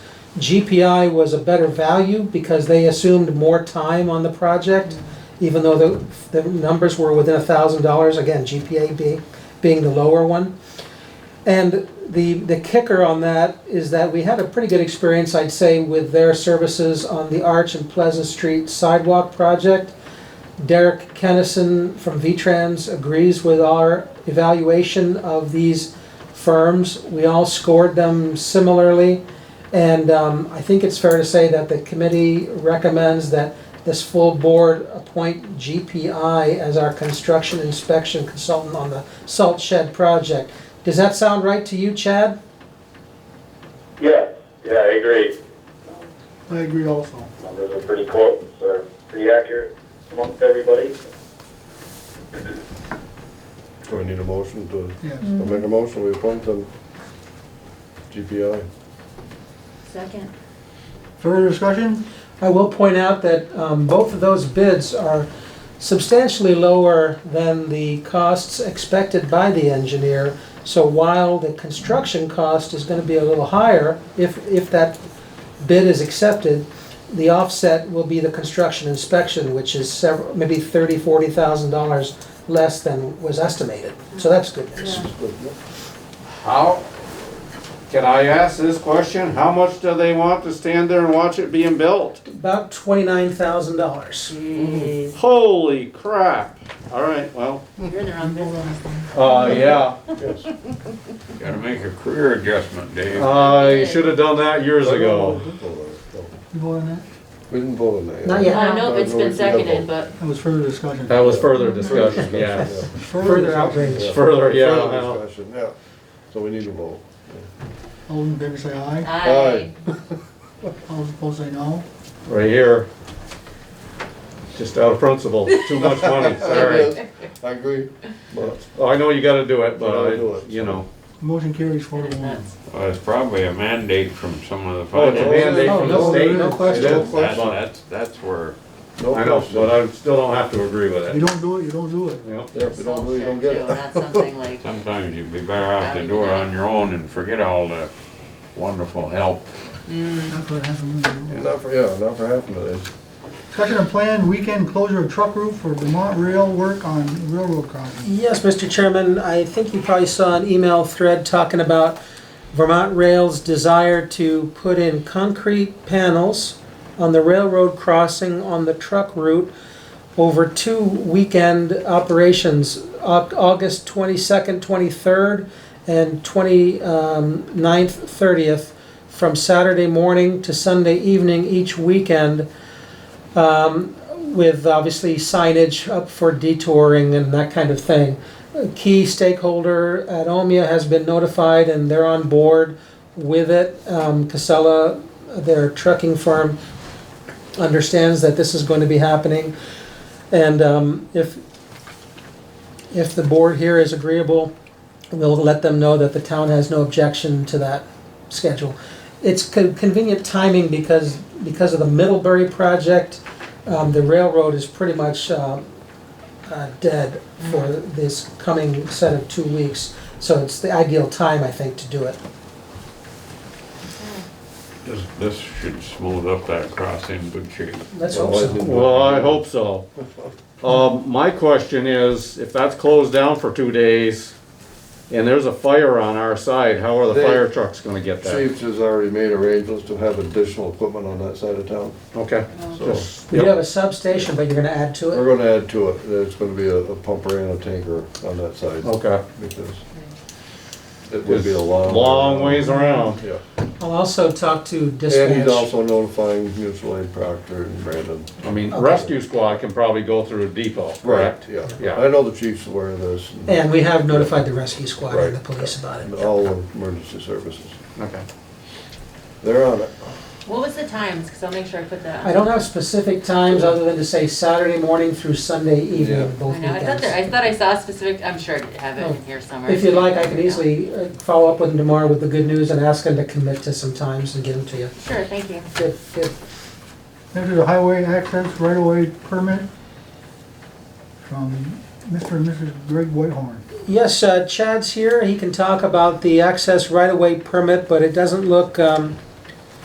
GPI was a better value because they assumed more time on the project, even though the, the numbers were within a thousand dollars, again, GPA being, being the lower one. And the, the kicker on that is that we had a pretty good experience, I'd say, with their services on the Arch and Pleasant Street sidewalk project. Derek Kennison from V-Trans agrees with our evaluation of these firms. We all scored them similarly. And um, I think it's fair to say that the committee recommends that this full board appoint GPI as our construction inspection consultant on the salt shed project. Does that sound right to you, Chad? Yes, yeah, I agree. I agree also. Numbers are pretty close, they're pretty accurate amongst everybody. Do we need a motion to, Yes. I'll make a motion, er we appoint them GPI. Second. Further discussion? I will point out that um, both of those bids are substantially lower than the costs expected by the engineer. So while the construction cost is going to be a little higher, if, if that bid is accepted, the offset will be the construction inspection, which is several, maybe thirty, forty thousand dollars less than was estimated. So that's good news. Yeah. How, can I ask this question? How much do they want to stand there and watch it being built? About twenty-nine thousand dollars. Jeez, Holy crap. All right, well, You're in the wrong business. uh, yeah, Yes. Gotta make a career adjustment, Dave. I should have done that years ago. You vote on that? We didn't vote on that. Not I yet. don't know if it's been seconded, but That was further discussion. That was further discussion, yes. Further discussion. outrage. Further, yeah, Further well. discussion, yeah. So we need a vote. All in favor say aye, I, all opposed say no. Right here. Just out of principle, too much money, sorry. Yes, I agree, but I know you gotta do it, You gotta do but, it. you know. Motion carries four to one. that's, Well, it's probably a mandate from some of the Oh, it's a finance. mandate Oh, from no, the state. no question. It is, That's, but- that's, that's where, no I know, but question. I still don't have to agree with You it. don't do it, you don't do it. Yeah. Yeah, if we don't, we don't too, get it. that's something like, sometimes you'd be better off to do it on your own and forget all the wonderful help. That's what happened. when you do it. Not for, yeah, not for half of it. Discussion and plan, weekend closure of truck route for Vermont rail work on railroad crossing. Yes, Mr. Chairman, I think you probably saw an email thread talking about Vermont Rail's desire to put in concrete panels on the railroad crossing on the truck route over two weekend operations, Au- August 22nd, 23rd, and 29th, 30th, from Saturday morning to Sunday evening each weekend with obviously signage up for detouring and that kind of thing. A Key stakeholder at Omea has been notified and they're on board with it. Um, Casella, their trucking firm, understands that this is going to be happening. And um, if, if the board here is agreeable, we'll let them know that the town has no objection to that schedule. It's con- convenient timing because, because of the Middlebury project, um, the railroad is pretty much, uh, uh, dead for Mm-hmm. this coming set of two weeks. So it's the ideal time, I think, to do it. This, this should smooth up that crossing good shape. Let's hope so. Well, I hope so. Um, my question is, if that's closed down for two days, and there's a fire on our side, how are the They- fire trucks gonna get there? Chiefs has already made arrangements to have additional equipment on that side of town, Okay, so You have yep, a substation, but you're gonna add to it. we're gonna add to it. There's gonna be a a pumper and a tanker on that side. okay. because it would be a long. Long ways around. Yeah, I'll also talk to and he's dispatch. also notifying mutual aid Proctor and Brandon. I mean, Okay. rescue squad can probably go through the depot, correct? Yeah, Yeah. I know the chief's aware of this, and And we have notified the rescue squad and the Right. police about and it. all the emergency services, Okay. they're on it. what was the times, cause I'll make sure I put that on. I don't have specific times other than to say Saturday morning through Sunday Yeah. evening, both I know, I thought there, weekends. I thought I saw a specific, I'm sure I have it Oh. in here somewhere. If you'd like, I can easily uh, follow up with him tomorrow with the good news and ask him to commit to some times and get them to you. Sure, thank you. Good, good. Next is a highway access right-of-way permit from Mr. and Mrs. Greg Whitehorn. Yes, uh, Chad's here, he can talk about the access right-of-way permit, but it doesn't look, um,